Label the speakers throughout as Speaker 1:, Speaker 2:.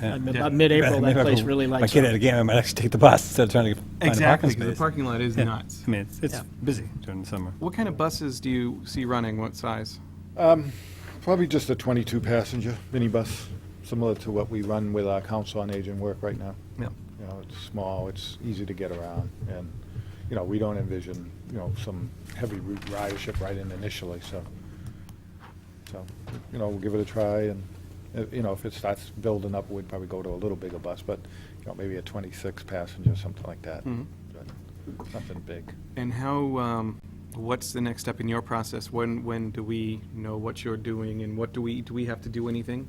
Speaker 1: Yeah.
Speaker 2: Like, About mid-April, that place really
Speaker 1: If
Speaker 2: lights
Speaker 1: I get
Speaker 2: up.
Speaker 1: it again, I might actually take the bus instead of trying to find a
Speaker 3: Exactly,
Speaker 1: parking
Speaker 3: 'cause the
Speaker 1: space.
Speaker 3: parking lot is
Speaker 1: Yeah.
Speaker 3: nuts.
Speaker 1: I mean, it's, it's
Speaker 2: Yeah.
Speaker 1: busy during the summer. Hmm?
Speaker 3: What kind of buses do you see running? What size?
Speaker 4: Um, Probably just a 22-passenger minibus, similar to what we run with our council on aging work right now.
Speaker 3: Yeah.
Speaker 4: You know, it's small, it's easy to get around, and, you know, we don't envision, you know, some heavy route ridership right in initially, so, so, you know, we'll give it a try, and, uh, you know, if it starts building up, we'd probably go to a little bigger bus, but, you know, maybe a 26-passenger, something like that.
Speaker 3: Mhm.
Speaker 4: But Nothing big.
Speaker 3: And how, um, what's the next step in your process? When, when do we know what you're doing and what do we, do we have to do anything?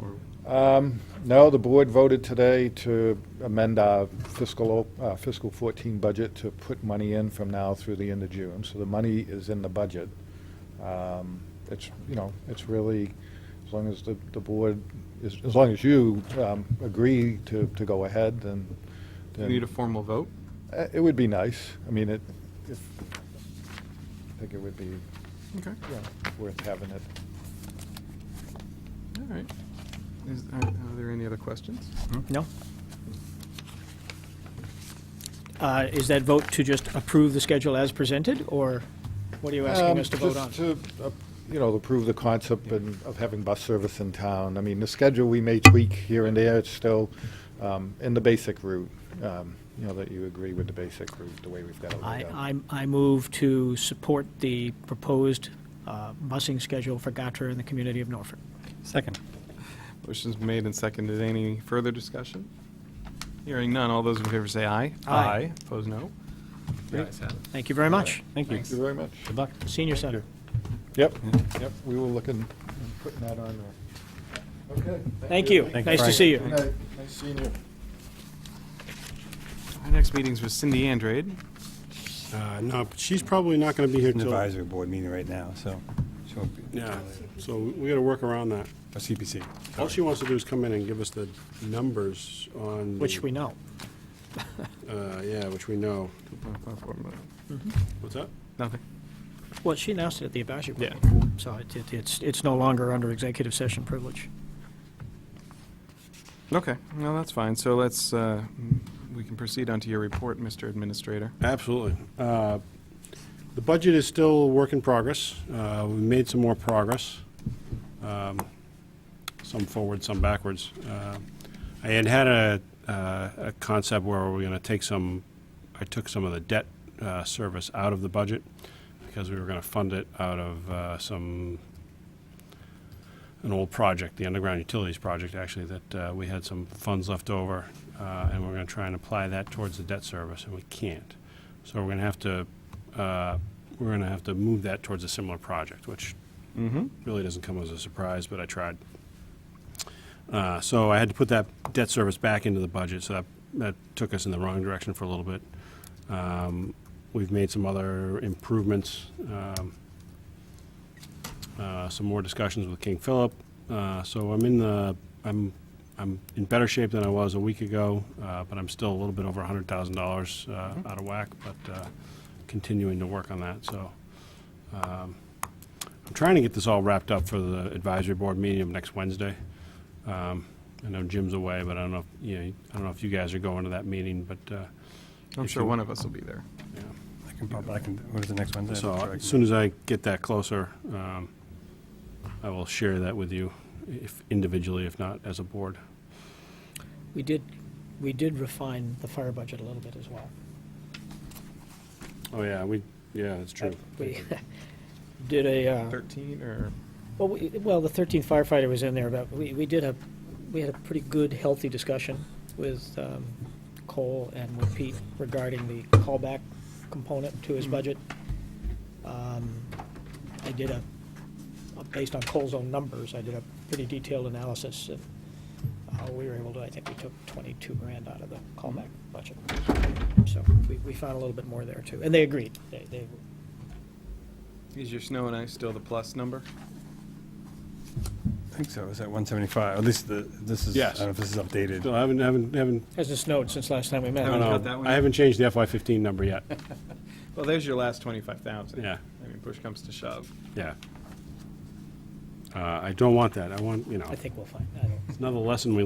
Speaker 3: Or
Speaker 4: Um, No, the board voted today to amend our fiscal, op- uh, fiscal 14 budget to put money in from now through the end of June. So the money is in the budget. Um, It's, you know, it's really, as long as the, the board, is- as long as you um, agree to, to go ahead, then.
Speaker 3: do we
Speaker 4: then-
Speaker 3: need a formal vote?
Speaker 4: Uh, It would be nice. I mean, it, if, I think it would be, you
Speaker 3: Okay,
Speaker 4: know, worth having it.
Speaker 3: all right. Is, are are there any other questions?
Speaker 2: No? Uh, Is that vote to just approve the schedule as presented, or what are you asking
Speaker 4: Um,
Speaker 2: us to vote on?
Speaker 4: just to, uh, You know, approve the concept and- of having bus service in town. I mean, the schedule we may tweak here and there, it's still um, in the basic route, um, you know, that you agree with the basic route, the way we've got it
Speaker 2: I,
Speaker 4: laid out.
Speaker 2: I, I move to support the proposed uh, busing schedule for Gatra and the community of Norfolk.
Speaker 1: Second.
Speaker 3: Motion's made and seconded. Any further discussion? Hearing none. All those in favor say aye.
Speaker 2: Aye.
Speaker 3: Opposed, no. The ayes have it.
Speaker 2: Thank you very much,
Speaker 1: Thank you.
Speaker 4: Thank you very much.
Speaker 1: Good luck.
Speaker 2: senior center.
Speaker 4: Yep, yep, we will look and and putting that on there. Okay.
Speaker 2: Thank you,
Speaker 1: Thank you,
Speaker 2: nice to
Speaker 1: Frank.
Speaker 2: see
Speaker 4: Good
Speaker 2: you.
Speaker 4: night. Nice seeing you.
Speaker 3: Our next meeting's with Cindy Andrade.
Speaker 5: Uh, No, but she's probably not going to be here
Speaker 1: An
Speaker 5: till,
Speaker 1: advisory board meeting right now, so. she won't be-
Speaker 5: yeah, so we got to work around that.
Speaker 1: Or CPC.
Speaker 5: All she wants to do is come in and give us the numbers on.
Speaker 2: Which
Speaker 5: the-
Speaker 2: we know.
Speaker 5: uh, Yeah, which we know. What's that?
Speaker 3: Nothing.
Speaker 2: Mm-hmm. Well, she announced it at the advisory
Speaker 3: Yeah.
Speaker 2: board, so it- it- it's, it's no longer under executive session privilege.
Speaker 3: Okay, no, that's fine. So let's, uh, we can proceed on to your report, Mr. Administrator.
Speaker 5: Absolutely. Uh, The budget is still a work in progress. Uh, We made some more progress, um, some forward, some backwards. Uh, I had had a uh, a concept where we were going to take some, I took some of the debt uh, service out of the budget because we were going to fund it out of uh, some, an old project, the underground utilities project, actually, that uh, we had some funds left over, uh, and we're going to try and apply that towards the debt service, and we can't. So we're going to have to, uh, we're going to have to move that towards a similar project, which
Speaker 3: Mm-hmm.
Speaker 5: really doesn't come as a surprise, but I tried. Uh, So I had to put that debt service back into the budget, so that, that took us in the wrong direction for a little bit. Um, We've made some other improvements, um, uh, some more discussions with King Philip. Uh, So I'm in the, I'm, I'm in better shape than I was a week ago, uh, but I'm still a little bit over $100,000 uh, out of whack, but uh, continuing to work on that, so. um, I'm trying to get this all wrapped up for the advisory board meeting of next Wednesday. Um, I know Jim's away, but I don't know, if you know, I don't know if you guys are going to that meeting, but, uh,
Speaker 3: I'm
Speaker 5: If
Speaker 3: sure
Speaker 5: you-
Speaker 3: one of us will be there.
Speaker 5: yeah.
Speaker 1: I can probably, I can, what is the next Wednesday?
Speaker 5: So as soon as I get that closer, um, I will share that with you if individually, if not as a board.
Speaker 2: We did, we did refine the fire budget a little bit as well.
Speaker 5: Oh, yeah, we, yeah, that's true.
Speaker 2: We did a,
Speaker 3: Uh-huh.
Speaker 2: uh,
Speaker 3: 13 or?
Speaker 2: Well, we, well, the thirteenth firefighter was in there, but we, we did a, we had a pretty good, healthy discussion with, um, Cole and with Pete regarding the callback component to his budget. Um, I did a, uh, based on Cole's own numbers, I did a pretty detailed analysis and, uh, we were able to, I think we took twenty-two grand out of the callback budget. So we, we found a little bit more there too, and they agreed, they, they,
Speaker 3: Is your snow and ice still the plus number?
Speaker 1: I think so, is that 175? At least the, this is, I
Speaker 5: Yes.
Speaker 1: don't know if this is updated.
Speaker 5: Still haven't, haven't, haven't,
Speaker 2: hasn't snowed since last time we met.
Speaker 5: I
Speaker 3: Haven't
Speaker 5: don't
Speaker 3: got that
Speaker 5: know.
Speaker 3: one
Speaker 5: I
Speaker 3: yet?
Speaker 5: haven't changed the FY fifteen number yet.
Speaker 3: Well, there's your last 25,000.
Speaker 5: Yeah.
Speaker 3: I mean, push comes to shove.
Speaker 5: Yeah. Uh, I don't want that. I want, you know,
Speaker 2: I think we'll find, I don't.
Speaker 5: it's another lesson we